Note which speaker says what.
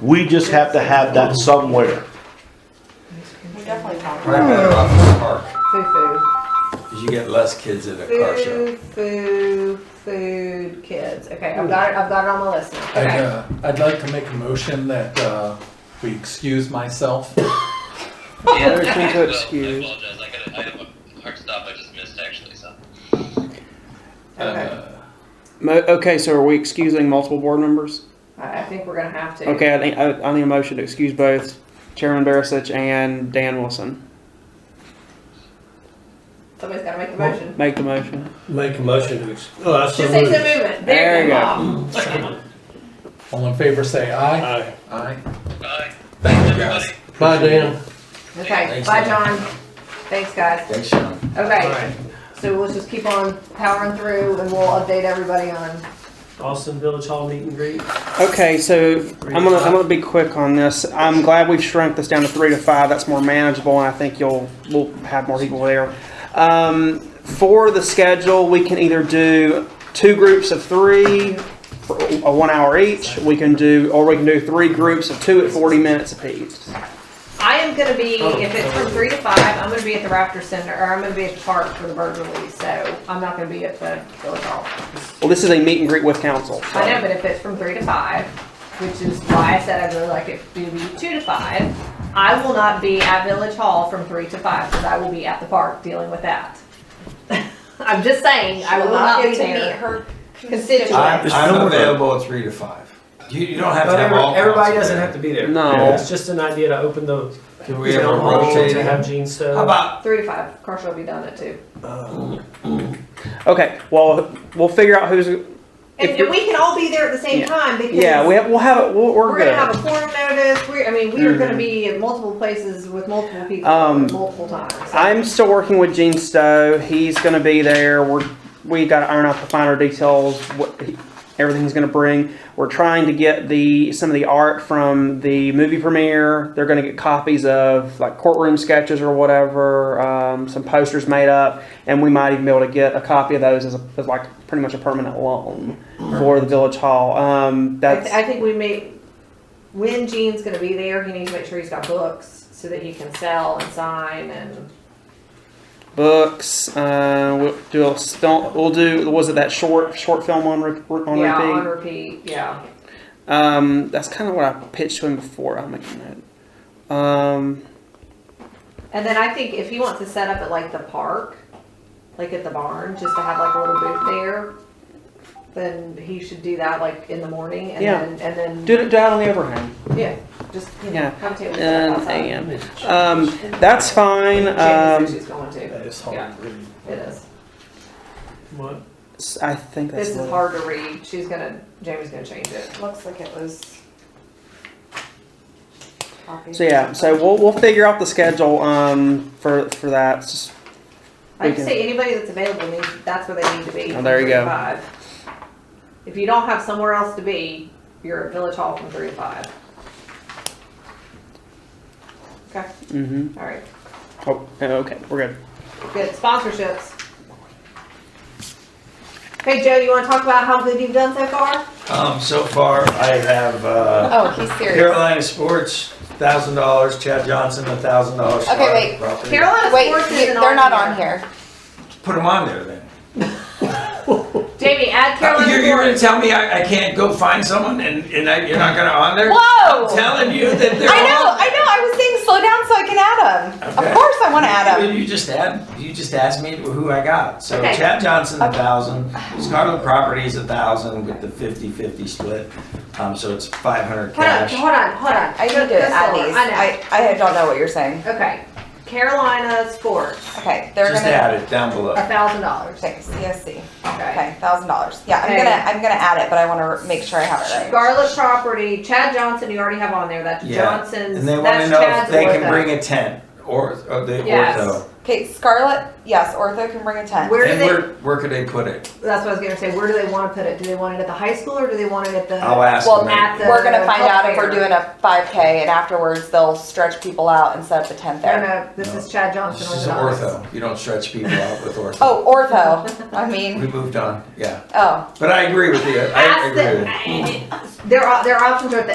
Speaker 1: We just have to have that somewhere.
Speaker 2: We definitely talked
Speaker 3: Probably
Speaker 2: about
Speaker 3: better off in the park,
Speaker 2: food,
Speaker 3: because you get less kids at a car show.
Speaker 2: food, food, food, food, kids. Okay,
Speaker 4: Hmm.
Speaker 2: I've got it. I've got it on my list. now.
Speaker 5: I'd,
Speaker 2: Okay.
Speaker 5: uh, I'd like to make a motion that, uh, we excuse myself.
Speaker 6: Yeah,
Speaker 4: Motion to
Speaker 6: I
Speaker 4: excuse.
Speaker 6: apologize. I got a, I have a hard stop. I just missed actually. So
Speaker 2: Okay.
Speaker 5: Uh,
Speaker 4: Mo- okay, so are we excusing multiple board members?
Speaker 2: I I think we're gonna have to.
Speaker 4: Okay, I need, I, I need a motion to excuse both Chairman Barisic and Dan Wilson.
Speaker 2: Somebody's gotta make the motion.
Speaker 4: Make the motion.
Speaker 7: Make a motion to, ex- oh, I
Speaker 2: Just
Speaker 7: so
Speaker 2: takes a
Speaker 7: moved.
Speaker 2: movement.
Speaker 4: There you go.
Speaker 2: Bob.
Speaker 5: All in favor, say aye.
Speaker 7: Aye.
Speaker 5: Aye.
Speaker 6: bye.
Speaker 3: Thank you
Speaker 6: Everybody.
Speaker 3: guys.
Speaker 7: Bye, Dan.
Speaker 2: Okay,
Speaker 3: Thanks,
Speaker 2: bye, John.
Speaker 3: John.
Speaker 2: Thanks, guys.
Speaker 3: Thanks, Sean.
Speaker 2: Okay, so we'll just keep on powering through and we'll update everybody on.
Speaker 7: Austin Village Hall meet and greet.
Speaker 4: Okay, so I'm gonna, I'm gonna be quick on this. I'm glad we've shrunk this down to three to five. That's more manageable and I think you'll, we'll have more people there. Um, for the schedule, we can either do two groups of three, for a one hour each. We can do, or we can do three groups of two at forty minutes apiece.
Speaker 2: I am gonna be,
Speaker 3: Oh,
Speaker 2: if it's from three to five, I'm gonna be at the Raptor Center, or I'm gonna be at the park for the bird release, so I'm not gonna be at the Village Hall.
Speaker 4: Well, this is a meet and greet with council. so-
Speaker 2: I know, but if it's from three to five, which is why I said I'd really like it to be two to five, I will not be at Village Hall from three to five, because I will be at the park dealing with that. I'm just saying, I will not be
Speaker 8: get to meet
Speaker 2: there.
Speaker 8: her
Speaker 2: Constituents.
Speaker 3: I'm,
Speaker 9: Just
Speaker 3: I'm
Speaker 9: film with her.
Speaker 3: available at three to five. You, you don't have
Speaker 9: But
Speaker 3: to have
Speaker 9: every-
Speaker 3: all.
Speaker 9: everybody
Speaker 3: council
Speaker 9: doesn't
Speaker 3: there.
Speaker 9: have to be there.
Speaker 4: No.
Speaker 9: It's just an idea to open the
Speaker 3: Can we ever
Speaker 9: town hall
Speaker 3: rotate?
Speaker 9: to
Speaker 3: it?
Speaker 9: have Gene
Speaker 3: How
Speaker 9: Stowe.
Speaker 3: about,
Speaker 2: Three to five, Carson will be done at two.
Speaker 4: Okay, well, we'll figure out who's.
Speaker 2: And,
Speaker 4: If you-
Speaker 2: and we can all be there at the same
Speaker 4: Yeah.
Speaker 2: time because
Speaker 4: Yeah, we have, we'll have it. We'll, we're,
Speaker 2: we're
Speaker 4: good.
Speaker 2: gonna have a quorum notice. We're, I mean, we are gonna
Speaker 4: Mhm.
Speaker 2: be in multiple places with multiple people
Speaker 4: Um,
Speaker 2: at multiple times. So
Speaker 4: I'm still working with Gene Stowe. He's going to be there. We're we got to iron out the finer details. What he, everything he's going to bring. We're trying to get the some of the art from the movie premiere. They're going to get copies of like courtroom sketches or whatever. Um, some posters made up, and we might even be able to get a copy of those as, a, as like pretty much a permanent loan for the village hall. Um,
Speaker 2: I,
Speaker 4: that's
Speaker 2: th- I think we may. When Gene's gonna be there, he needs to make sure he's got books so that he can sell and sign and.
Speaker 4: books. Uh, we'll do a st- we'll do was it that short short film on re- on
Speaker 2: yeah,
Speaker 4: repeat?
Speaker 2: on repeat. Yeah.
Speaker 4: um, that's kind of what I pitched to him before. I'll make a note. Um,
Speaker 2: And then I think if he wants to set up at like the park, like at the barn, just to have like a little booth there, then he should do that like in the morning and
Speaker 4: Yeah.
Speaker 2: then and then
Speaker 4: do it do it out on the overhang.
Speaker 2: Yeah, just, you know,
Speaker 4: Yeah.
Speaker 2: have a table set up
Speaker 4: And
Speaker 2: outside.
Speaker 4: a.m. Um, that's fine.
Speaker 2: Janice
Speaker 4: Um,
Speaker 2: says she's going to.
Speaker 5: That is hard to read.
Speaker 2: It is.
Speaker 7: What?
Speaker 4: s- I think that's.
Speaker 2: This is
Speaker 4: what-
Speaker 2: hard to read. She's gonna, Jamie's gonna change it.
Speaker 8: Looks like it was. copied.
Speaker 4: So yeah, so we'll we'll figure out the schedule um for for that. It's just-
Speaker 2: I just
Speaker 4: Okay.
Speaker 2: say anybody that's available needs, that's where they need to be.
Speaker 4: Oh, there
Speaker 2: from three
Speaker 4: you
Speaker 2: to
Speaker 4: go.
Speaker 2: five. If you don't have somewhere else to be, you're at Village Hall from three to five. Okay,
Speaker 4: mhm.
Speaker 2: all right.
Speaker 4: Oh, okay, we're good.
Speaker 2: Good sponsorships. Hey, Joe, you wanna talk about how good you've done so far?
Speaker 3: um, so far, I have, uh,
Speaker 8: Oh, he's serious.
Speaker 3: Carolina Sports, thousand dollars, Chad Johnson, a thousand dollars.
Speaker 8: Okay, wait.
Speaker 2: Carolina
Speaker 8: Wait,
Speaker 2: Sports
Speaker 8: you-
Speaker 2: isn't
Speaker 8: they're not
Speaker 2: on
Speaker 8: on
Speaker 2: here.
Speaker 8: here.
Speaker 3: Put them on there then.
Speaker 2: Jamie, add
Speaker 3: Uh,
Speaker 2: Carolina
Speaker 3: You're,
Speaker 2: Sports.
Speaker 3: you're gonna tell me I, I can't go find someone and, and I, you're not gonna on there?
Speaker 8: Whoa!
Speaker 3: I'm telling you that they're
Speaker 8: I know,
Speaker 3: on.
Speaker 8: I know. I was saying slow down so I can add them.
Speaker 3: Okay.
Speaker 8: Of course, I want to add
Speaker 3: Well,
Speaker 8: them.
Speaker 3: You just add, you just asked me who I got. So
Speaker 2: Okay.
Speaker 3: Chad Johnson, a thousand, Scarlet Properties, a thousand with the 50-50 split. Um, so it's five hundred
Speaker 2: Hold on,
Speaker 3: cash.
Speaker 2: hold on, hold on.
Speaker 8: I need
Speaker 2: Go-
Speaker 8: to
Speaker 2: go
Speaker 8: add
Speaker 2: slower.
Speaker 8: these.
Speaker 2: I
Speaker 8: I, I don't know what you're saying.
Speaker 2: know. Okay. Carolina Sports,
Speaker 8: Okay, they're
Speaker 3: Just
Speaker 8: gonna.
Speaker 3: add it down below.
Speaker 2: a thousand dollars.
Speaker 8: Okay, CSC.
Speaker 2: Okay.
Speaker 8: Okay, thousand dollars. Yeah, I'm
Speaker 2: Okay.
Speaker 8: gonna I'm gonna add it, but I want to make sure I have it right.
Speaker 2: Scarlet Property, Chad Johnson, you already have on there. That's
Speaker 3: Yeah.
Speaker 2: Johnson's.
Speaker 3: And they wanna
Speaker 2: that's
Speaker 3: know if
Speaker 2: Chad's
Speaker 3: they can
Speaker 2: ortho.
Speaker 3: bring a tent or, or the
Speaker 2: Yes.
Speaker 3: ortho.
Speaker 8: Okay, Scarlet. Yes, Ortho can bring a ten.
Speaker 2: Where do
Speaker 3: And
Speaker 2: they?
Speaker 3: where, where could they put it?
Speaker 2: that's what I was gonna say. Where do they want to put it? Do they want it at the high school or do they want it at the?
Speaker 3: I'll ask
Speaker 8: Well,
Speaker 3: them.
Speaker 2: at the-
Speaker 8: We're gonna find
Speaker 2: health
Speaker 8: out if we're
Speaker 2: fair.
Speaker 8: doing a five K and afterwards they'll stretch people out and set up a tent
Speaker 2: No,
Speaker 8: there.
Speaker 2: no. This is Chad Johnson.
Speaker 3: This is
Speaker 2: orthodontist.
Speaker 3: ortho. You don't stretch people out with ortho.
Speaker 8: Oh, ortho. I
Speaker 3: We
Speaker 8: mean,
Speaker 3: moved on, yeah.
Speaker 8: oh.
Speaker 3: But I agree with you. I
Speaker 2: Ask
Speaker 3: agree with you.
Speaker 2: them. Their op- their options are at the